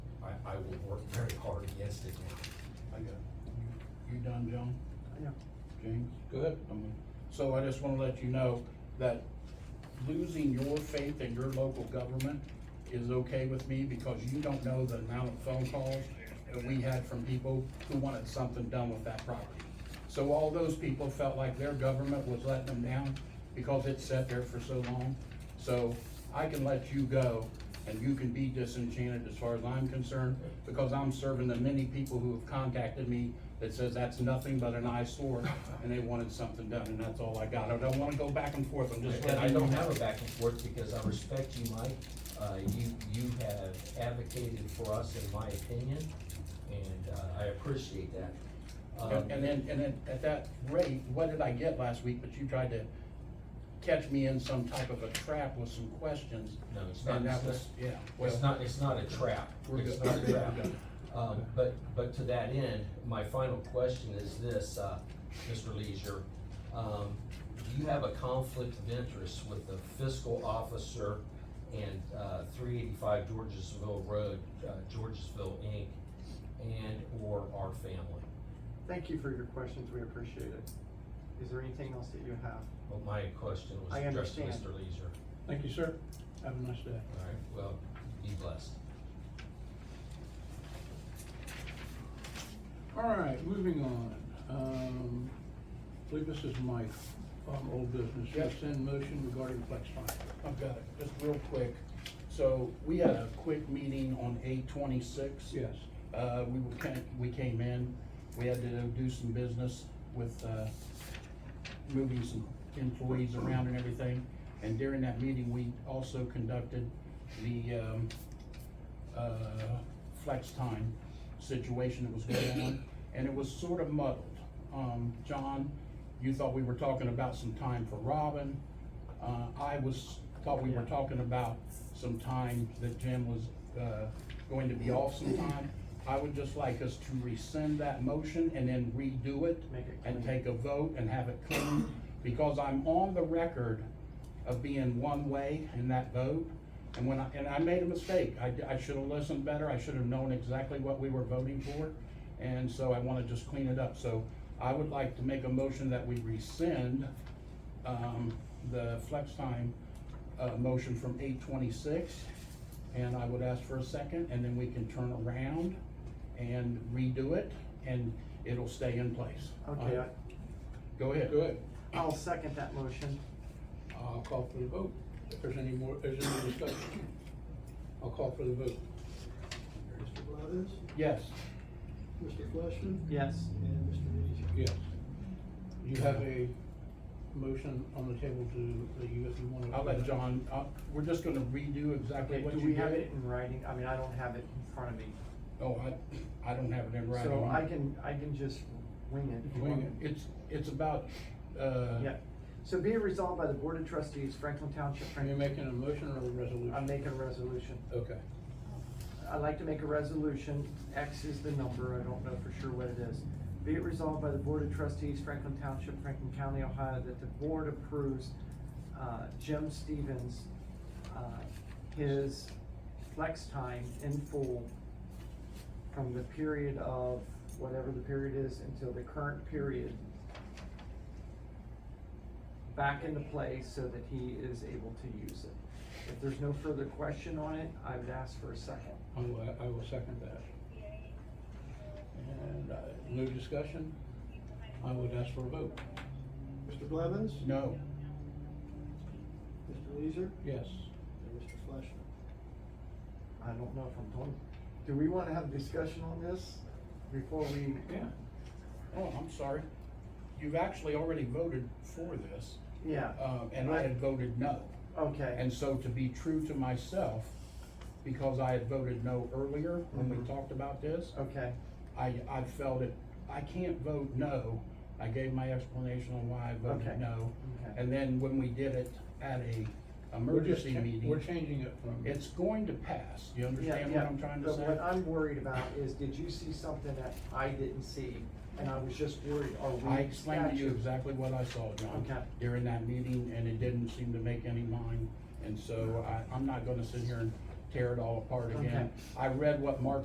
I will work very hard against it now. I got it. You you done, John? Yeah. James? Good. I mean, So I just wanna let you know that losing your faith in your local government is okay with me because you don't know the amount of phone calls that we had from people who wanted something done with that property. So all those people felt like their government was letting them down because it sat there for so long. So I can let you go and you can be disenchanted as far as I'm concerned, because I'm serving the many people who have contacted me that says that's nothing but an eyesore and they wanted something done and that's all I got. I don't wanna go back and forth, I'm just And I letting you don't know. have a back and forth because I respect you, Mike. Uh, you, you have advocated for us, in my opinion, and, uh, I appreciate that. Um, And and then, and then at that rate, what did I get last week? But you tried to catch me in some type of a trap with some questions. No, it's not, And that it's was, not- yeah. well- it's not, it's not a trap. We're It's good. not a trap. We're good. Um, but, but to that end, my final question is this, uh, Mr. Leisure. Um, do you have a conflict of interest with the fiscal officer and, uh, three eighty-five Georgesville Road, uh, Georgesville Inc. and/or our family? Thank you for your questions, we appreciate it. Is there anything else that you have? Well, my question was I addressed to understand. Mr. Leisure. Thank you, sir. Have a nice day. All right, well, be blessed. All right, moving on. Um, I believe this is Mike, um, old business. Rescind motion regarding flex time. I've got it, just real quick. So we had a quick meeting on eight twenty-six. Yes. Uh, we were, kind- we came in, we had to do some business with, uh, moving some employees around and everything. And during that meeting, we also conducted the, um, uh, flex time situation that was going on, and it was sort of muddled. Um, John, you thought we were talking about some time for Robin. Uh, I was, thought we were talking about some time that Jim was, uh, going to be off some time. I would just like us to rescind that motion and then redo it. Make it And clean. take a vote and have it clean, because I'm on the record of being one way in that vote. And when I, and I made a mistake, I, I should have listened better, I should have known exactly what we were voting for, and so I wanna just clean it up, so I would like to make a motion that we rescind, um, the flex time, uh, motion from eight twenty-six, and I would ask for a second, and then we can turn around and redo it, and it'll stay in place. Okay, I- Go ahead. Good. I'll second that motion. I'll call for the vote. If there's any more, is there any discussion? I'll call for the vote. Mr. Blevins? Yes, Mr. Fleishman? Yes. And Mr. Leisure? Yes. You have a motion on the table to, that you, if you want to. I'll let John, uh, we're just gonna redo exactly Okay, what do you did. we have it in writing? I mean, I don't have it in front of me. Oh, I, I don't have it in writing. So I can, I can just wing it. if you want. It's, it's about, uh. Yeah. So be it resolved by the Board of Trustees, Franklin Township, Are you Franklin. making a motion or a resolution? I'm making a resolution. Okay. I'd like to make a resolution, X is the number, I don't know for sure what it is. Be it resolved by the Board of Trustees, Franklin Township, Franklin County, Ohio, that the board approves, uh, Jim Stevens, uh, his flex time in full from the period of, whatever the period is, until the current period back into play so that he is able to use it. If there's no further question on it, I would ask for a second. I will, I will second that. And, uh, no discussion? I would ask for a vote. Mr. Blevins? No, Mr. Leisure? Yes. And Mr. Fleishman? I don't know if I'm told. Do we wanna have a discussion on this before we? Yeah. oh, I'm sorry. You've actually already voted for this, Yeah, um, and I had voted no. okay, And so to be true to myself, because I had voted no earlier when we Mhm. talked about this, okay, I, I felt it, I can't vote no. I gave my explanation on why I Okay. voted no. okay. And then when we did it at a We're just emergency cha- meeting. We're changing it from. It's going to pass, you Yeah, understand what yeah. I'm trying to But what say? I'm worried about is, did you see something that I didn't see? And I was just worried, are we? I explained to you Gotcha. exactly what I saw, John, Okay. during that meeting, and it didn't seem to make any line, and so I, I'm not gonna sit here and tear it all apart again. I read what Mark